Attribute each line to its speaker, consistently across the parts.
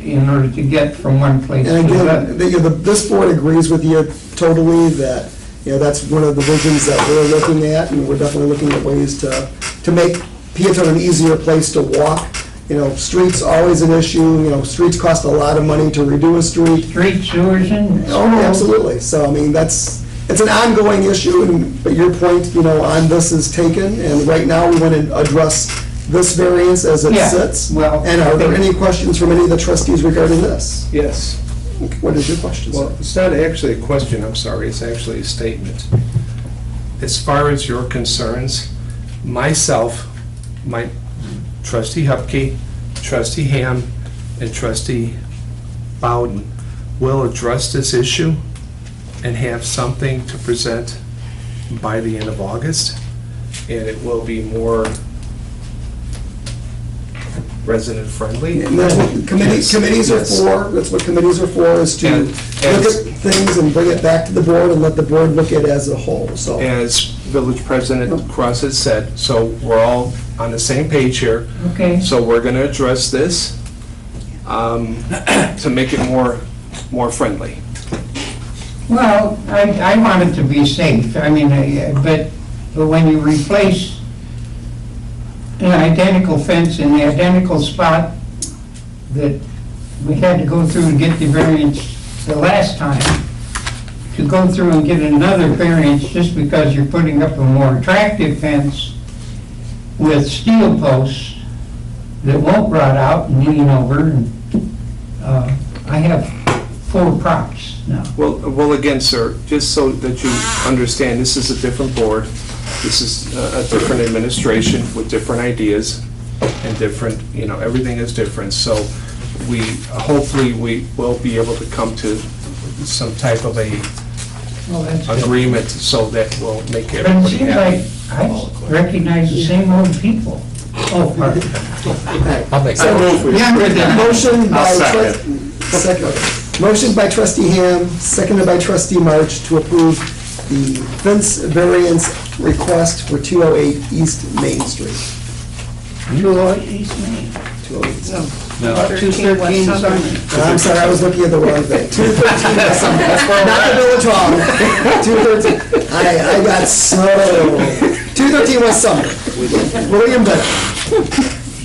Speaker 1: in order to get from one place to
Speaker 2: And
Speaker 1: the
Speaker 2: again,
Speaker 1: other.
Speaker 2: the- you know, the- this board agrees with you totally that, you know, that's one of the visions that we're looking at, and we're definitely looking at ways to, to make Peatone an easier place to walk. You know, streets always an issue, you know, streets cost a lot of money to redo a street.
Speaker 1: Street sewers and.
Speaker 2: Oh, absolutely, so, I mean, that's, it's an ongoing issue, and, but your point, you know, on this is taken, and right now, we want to address this variance as it
Speaker 1: Yeah,
Speaker 2: sits.
Speaker 1: well,
Speaker 2: And are there
Speaker 1: I think-
Speaker 2: any questions from any of the trustees regarding this?
Speaker 3: Yes,
Speaker 2: What is your question, sir?
Speaker 3: well, it's not actually a question, I'm sorry, it's actually a statement. As far as your concerns, myself, my trustee Hupkey, trustee Ham, and trustee Bowden will address this issue and have something to present by the end of August, and it will be more resident-friendly.
Speaker 2: And that's what committees,
Speaker 3: Yes,
Speaker 2: committees are
Speaker 3: yes.
Speaker 2: for, that's what committees are for, is to
Speaker 3: And-
Speaker 2: look
Speaker 3: and-
Speaker 2: at things and bring it back to the board and let the board look at it as a whole, so.
Speaker 3: as Village President Cross has said, so we're all on the same page here.
Speaker 1: Okay,
Speaker 3: So we're going to address this um, to make it more, more friendly.
Speaker 1: well, I, I want it to be safe, I mean, I- but, but when you replace an identical fence in the identical spot that we had to go through to get the variance the last time, to go through and get another variance just because you're putting up a more attractive fence with steel posts that won't rot out and lean over, and, uh, I have four props now.
Speaker 3: Well, well, again, sir, just so that you understand, this is a different board. This is a a different administration with different ideas and different, you know, everything is different. So we, hopefully, we will be able to come to some type of a
Speaker 1: Well, that's good.
Speaker 3: agreement so that will make
Speaker 1: But it
Speaker 3: everybody
Speaker 1: seems
Speaker 3: happy.
Speaker 1: like I recognize the same old people. Oh, pardon.
Speaker 4: I'll make
Speaker 2: So-
Speaker 1: Younger than most.
Speaker 2: Motion by,
Speaker 3: I'll
Speaker 2: trus- second, motion by trustee Ham, seconded by trustee March to approve the fence variance request for 208 East Main Street.
Speaker 1: You are East Main.
Speaker 2: 208 East.
Speaker 1: Uh, Two thirteen Summit.
Speaker 2: Uh, I'm sorry, I was looking at the wrong thing. 213, that's not the Village Hall. 213, I, I got so, 213 West Summer. William Bennett.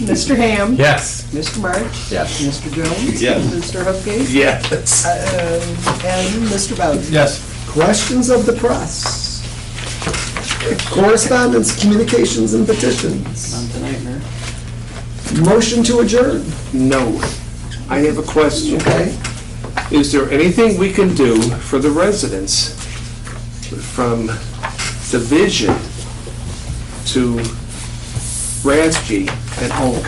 Speaker 5: Mr. Ham.
Speaker 4: Yes.
Speaker 5: Mr. March.
Speaker 4: Yes.
Speaker 5: Mr. Jones.
Speaker 4: Yes.
Speaker 5: Mr. Hupkey.
Speaker 4: Yes.
Speaker 5: Uh, And Mr. Bowden.
Speaker 4: Yes.
Speaker 2: Questions of the press? Correspondence, communications, and petitions. Motion to adjourn,
Speaker 3: No. I have a question.
Speaker 2: okay?
Speaker 3: Is there anything we can do for the residents from Division to Ransky and Oak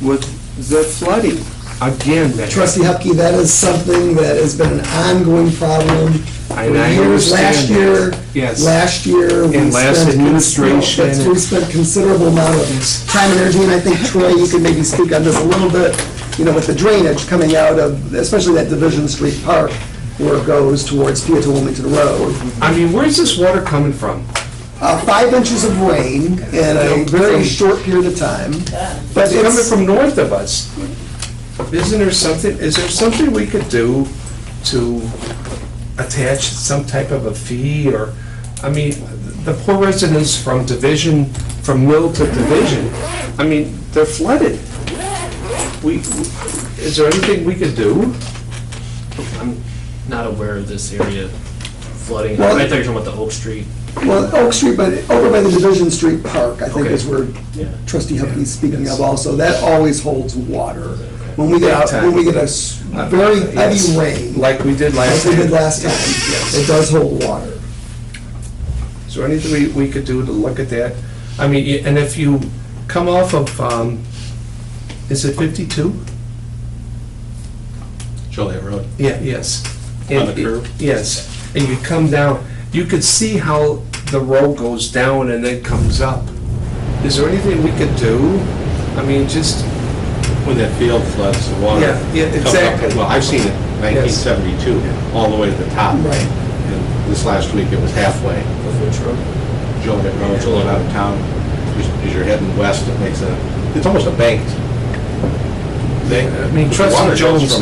Speaker 3: with the flooding? Again, that.
Speaker 2: Trustee Hupkey, that is something that has been an ongoing problem for
Speaker 3: I- I
Speaker 2: years. Last
Speaker 3: understand
Speaker 2: year,
Speaker 3: that. Yes.
Speaker 2: last year. we
Speaker 3: And last
Speaker 2: spent-
Speaker 3: administration.
Speaker 2: that's- We spent considerable amount of time and energy, and I think Troy, you could maybe speak on this a little bit, you know, with the drainage coming out of, especially that Division Street Park where it goes towards Peatone Wilmington Road.
Speaker 3: I mean, where's this water coming from?
Speaker 2: Uh, Five inches of rain in a very short period of time. But
Speaker 3: It's coming
Speaker 2: it's,
Speaker 3: from north of us. Isn't there something, is there something we could do to attach some type of a fee or, I mean, the poor residents from Division, from Mill to Division, I mean, they're flooded. We, is there anything we could do?
Speaker 6: I'm not aware of this area flooding.
Speaker 2: Well-
Speaker 6: I thought you were talking about the Oak Street.
Speaker 2: well, Oak Street, but over by the Division Street Park, I think is
Speaker 3: Okay.
Speaker 2: where
Speaker 6: Yeah.
Speaker 2: trustee Hupkey's speaking of also, that always holds water. When we get,
Speaker 3: Big
Speaker 2: out-
Speaker 3: time.
Speaker 2: when we get a s- very
Speaker 3: Yes.
Speaker 2: heavy rain,
Speaker 3: Like we did last
Speaker 2: like
Speaker 3: year.
Speaker 2: we did last time,
Speaker 3: Yes.
Speaker 2: it does hold water.
Speaker 3: Is there anything we, we could do to look at that? I mean, y- and if you come off of, um, is it fifty-two?
Speaker 4: Joliet Road.
Speaker 3: Yeah, yes.
Speaker 4: On the
Speaker 3: And-
Speaker 4: curve?
Speaker 3: Yes, and you come down, you could see how the road goes down and then comes up. Is there anything we could do? I mean, just,
Speaker 4: When that field floods, the water.
Speaker 3: Yeah, yeah,
Speaker 4: comes up.
Speaker 3: exactly.
Speaker 4: Well, I've seen it 1972, all the way to the top.
Speaker 2: Right.
Speaker 4: And This last week, it was halfway. Joliet Road, Joliet out of town. As- As you're heading west, it makes a, it's almost a banked.
Speaker 3: I mean, Trustee Jones